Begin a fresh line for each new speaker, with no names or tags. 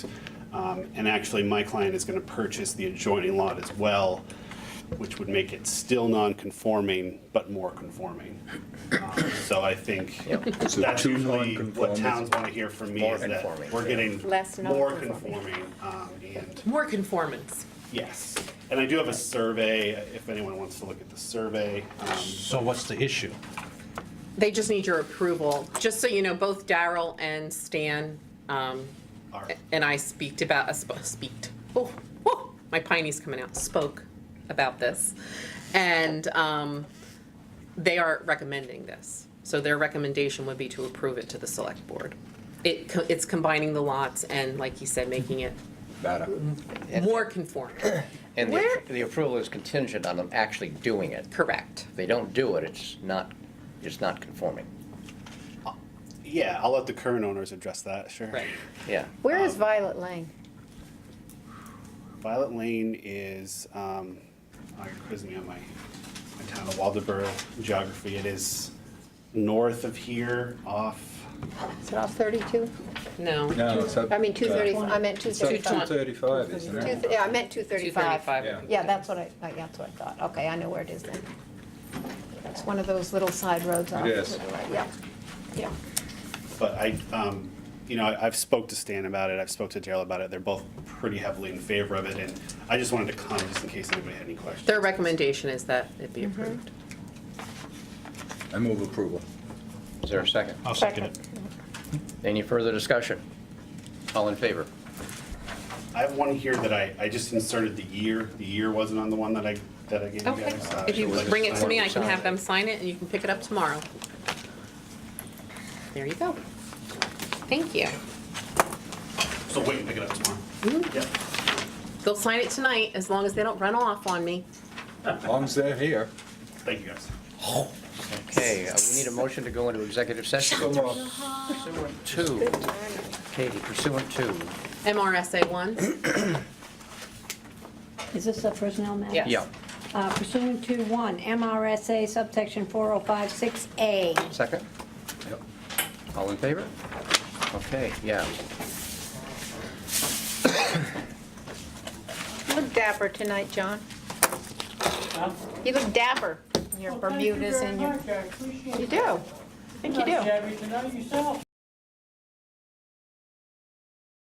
Um, And actually, my client is going to purchase the adjoining lot as well, which would make it still non-conforming, but more conforming. Um, So I think
So
that's
two
usually what
non-conformists.
towns want to hear from me
More
is that
conforming,
we're
yeah.
getting
Less
more
non-conforming.
conforming. um, And
More conformance.
yes, and I do have a survey, if anyone wants to look at the survey. Um,
So what's the issue?
They just need your approval. Just so you know, both Daryl and Stan um,
Are-
and I speaked about, uh, sp- speaked, oh, whoa, my piney's coming out, spoke about this. And um, they are recommending this. So their recommendation would be to approve it to the select board. It, co- it's combining the lots and, like you said, making it more conform.
And
Where-
the, the approval is contingent on them actually doing it.
Correct.
If they don't do it, it's not, it's not conforming.
Yeah, I'll let the current owners address that, sure.
Right.
Yeah.
Where
Um,
is Violet Lane?
Violet Lane is, um, oh, you're quizzing me on my, my town of Waldeboro geography. It is north of here off,
Is it off 32?
No.
No, it's up.
I mean, 230,
uh,
I meant
It's up
235.
two thirty-five, isn't
Two
it?
th- Yeah, I meant 235.
235.
Yeah.
Yeah, that's what I, I- that's what I thought. Okay, I know where it is then. That's one of those little side roads off. to
is.
the right. Yeah, yeah.
but I, um, you know, I- I've spoke to Stan about it. I've spoke to Daryl about it. They're both pretty heavily in favor of it. And I just wanted to comment just in case anybody had any questions.
Their recommendation is that it be approved.
I move approval.
Is there a second?
Uh,
I'll second it.
Any further discussion? All in favor?
I have one here that I, I just inserted the year. The year wasn't on the one that I, that I gave you
Okay,
guys.
if you
Uh,
bring it to me, I can
Sign
have
it.
them sign it, and you can pick it up tomorrow. There you go. Thank you.
So wait and pick it up tomorrow.
Mm-hmm.
Yep.
They'll sign it tonight, as long as they don't run off on me.
As long as they're here.
Thank you, guys.
Okay, uh, we need a motion to go into executive session.
Come on.
Pursuant to, Katie, pursuant to,
MRSA one,
Is this a personnel matter?
Yes.
yeah,
Uh, Pursuant to one, MRSA subsection 4056A.
second?
Yep.
All in favor? Okay, yeah.
You look dapper tonight, John. You look dapper in your
Well, thank you
Bermudas
very
and your,
much. I appreciate
you
it.
do. I think you do.
Nice having to know yourself.